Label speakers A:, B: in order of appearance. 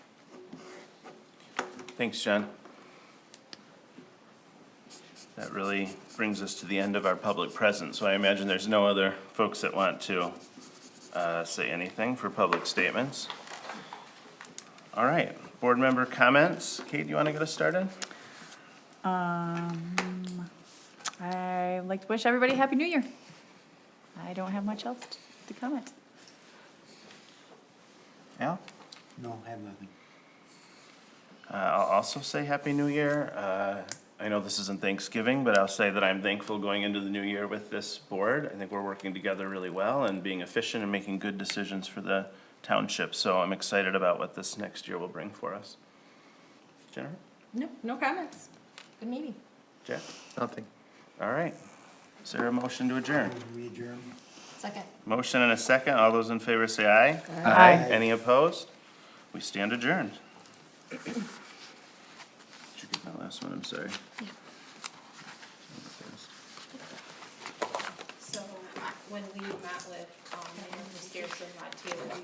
A: Thanks, John. That really brings us to the end of our public presence, so I imagine there's no other folks that want to uh, say anything for public statements. All right, board member comments. Kate, you want to get us started?
B: I'd like to wish everybody a Happy New Year. I don't have much else t- to comment.
A: Al?
C: No, I have nothing.
A: Uh, I'll also say Happy New Year. Uh, I know this isn't Thanksgiving, but I'll say that I'm thankful going into the new year with this board. I think we're working together really well and being efficient and making good decisions for the township. So I'm excited about what this next year will bring for us. Jennifer?
D: No, no comments. Good meeting.
A: Jack?
E: Nothing.
A: All right. Is there a motion to adjourn?
C: We adjourn.
D: Second.
A: Motion and a second. All those in favor say aye.
B: Aye.
A: Any opposed? We stand adjourned. Did you get my last one? I'm sorry.
F: So when we met with, um, Mayor Pierce and Rod Taylor, we